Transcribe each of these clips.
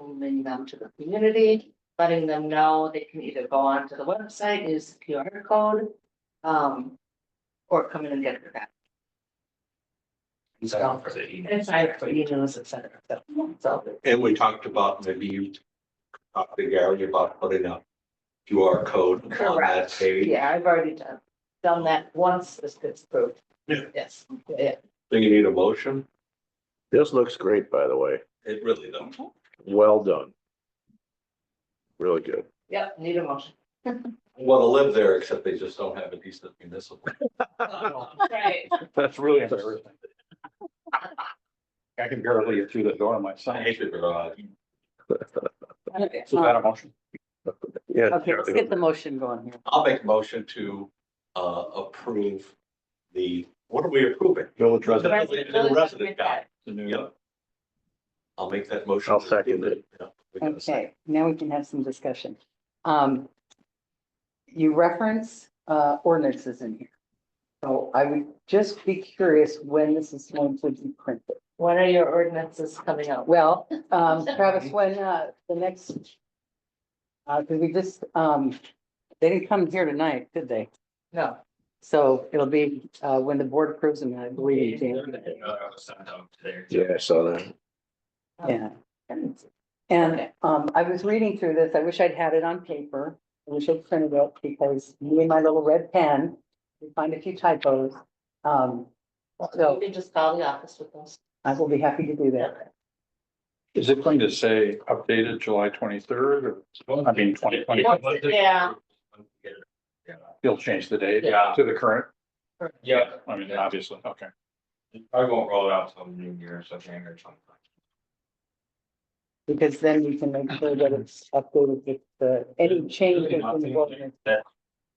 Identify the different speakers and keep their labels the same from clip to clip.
Speaker 1: moving them to the community, letting them know they can either go onto the website, use the QR code. Um, or come in and get it back.
Speaker 2: It's out for the email.
Speaker 1: And it's like for emails, et cetera, so, so,
Speaker 3: And we talked about maybe you talked to Gary about putting up QR code on that
Speaker 1: Correct.
Speaker 3: page.
Speaker 1: yeah, I've already done, done that once this gets approved.
Speaker 3: Yeah.
Speaker 1: Yes, yeah.
Speaker 3: Do you need a motion?
Speaker 4: This looks great, by the way.
Speaker 3: It really does.
Speaker 4: Well done. Really good.
Speaker 1: Yep, need a motion.
Speaker 3: Well, to live there, except they just don't have a decent municipal.
Speaker 1: Right.
Speaker 2: That's really embarrassing. I can barely get through the door on my
Speaker 3: I
Speaker 2: side.
Speaker 3: hate the garage.
Speaker 5: Okay,
Speaker 2: Is that a motion?
Speaker 4: Yeah.
Speaker 5: Okay, let's get the motion going here.
Speaker 3: I'll make a motion to uh approve the, what are we approving?
Speaker 4: Village
Speaker 3: The
Speaker 4: resident.
Speaker 3: resident guide. Yep. I'll make that motion.
Speaker 4: I'll second it.
Speaker 3: Yeah, we got a second.
Speaker 5: Okay, now we can have some discussion. Um, you reference, uh, ordinances in here. So I would just be curious when this is going to be printed.
Speaker 1: When are your ordinances coming out?
Speaker 5: Well, um, Travis, when, uh, the next, uh, cause we just, um, they didn't come here tonight, did they?
Speaker 1: No,
Speaker 5: So it'll be, uh, when the board approves them, I believe, Dan.
Speaker 4: Yeah, I saw that.
Speaker 5: Yeah. And um, I was reading through this. I wish I'd had it on paper. I wish I'd printed it because me and my little red pen, we find a few typos. Um,
Speaker 1: you
Speaker 5: so
Speaker 1: can just call the office with those.
Speaker 5: I will be happy to do that.
Speaker 2: Is it going to say updated July twenty-third or, I mean, twenty twenty,
Speaker 1: Yeah.
Speaker 2: they'll change the date
Speaker 6: Yeah.
Speaker 2: to the current?
Speaker 6: Yeah,
Speaker 2: I mean, obviously, okay.
Speaker 6: I won't roll it out till New Year's, I think, or something.
Speaker 5: Because then we can make sure that it's updated with the, any changes in the ordinance.
Speaker 6: That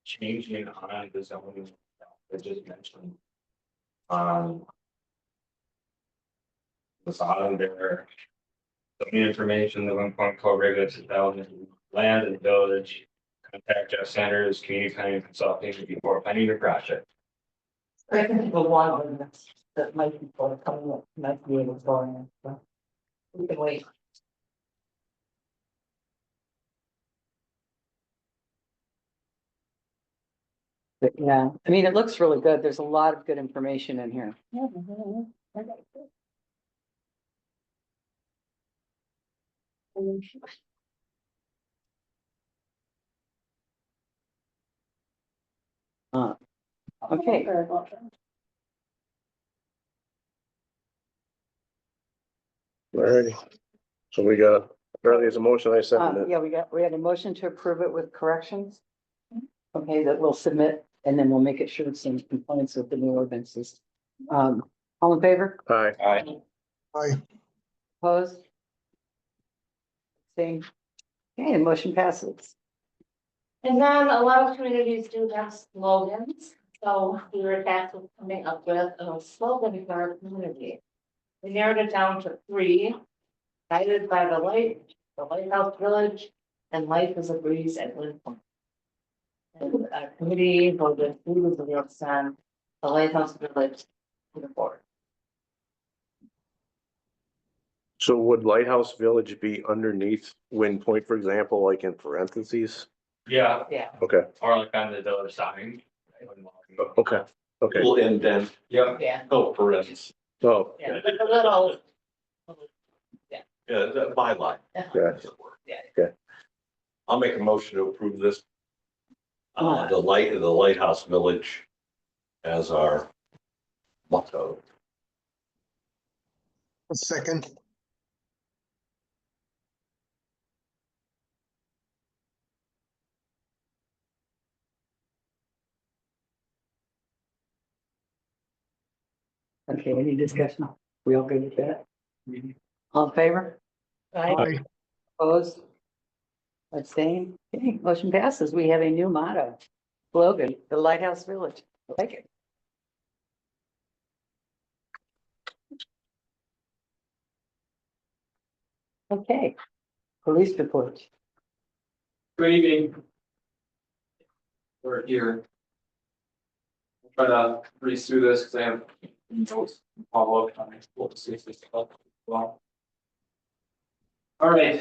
Speaker 6: changing on the zoning, I just mentioned. Um. Was on there. The information, the one point code regulates the development of land and village. Contact Jeff Sanders, community planning consulting before planning your project.
Speaker 1: I can think of one ordinance that might be for coming up, might be able to go in, so. We can wait.
Speaker 5: But yeah, I mean, it looks really good. There's a lot of good information in here. Uh, Okay.
Speaker 4: Alrighty. So we got, apparently there's a motion I
Speaker 5: Um,
Speaker 4: second it.
Speaker 5: yeah, we got, we had a motion to approve it with corrections. Okay, that we'll submit and then we'll make it sure it's in compliance with the new ordinances. Um, all in favor,
Speaker 4: Hi,
Speaker 2: I,
Speaker 5: opposed? Same. Okay, the motion passes.
Speaker 1: And then a lot of communities do have slogans, so we were tasked with coming up with a slogan for our community. We narrowed it down to three, guided by the light, the lighthouse village, and life is a breeze at Wind Point. And our committee voted through the real sun, the lighthouse village, to the board.
Speaker 4: so would Lighthouse Village be underneath Wind Point, for example, like in parentheses?
Speaker 6: Yeah,
Speaker 1: Yeah,
Speaker 4: Okay,
Speaker 6: or like on the village sign.
Speaker 4: okay, okay.
Speaker 3: We'll end then.
Speaker 6: Yeah,
Speaker 1: yeah,
Speaker 3: Oh, parentheses.
Speaker 4: Oh,
Speaker 1: yeah, but a little,
Speaker 3: Yeah, that by line.
Speaker 4: yeah.
Speaker 1: yeah.
Speaker 3: I'll make a motion to approve this. Uh, the light, the Lighthouse Village as our motto.
Speaker 7: A second.
Speaker 5: Okay, any discussion? We all good with that? All in favor,
Speaker 1: Right?
Speaker 7: Aye.
Speaker 5: opposed? Abstain. Okay, motion passes. We have a new motto. Slogan, the Lighthouse Village. I like it. Okay. Police report.
Speaker 8: Good evening. We're here. I'll Try to breeze through this because I have notes, follow up on it, we'll see if this. helps as Well. All right,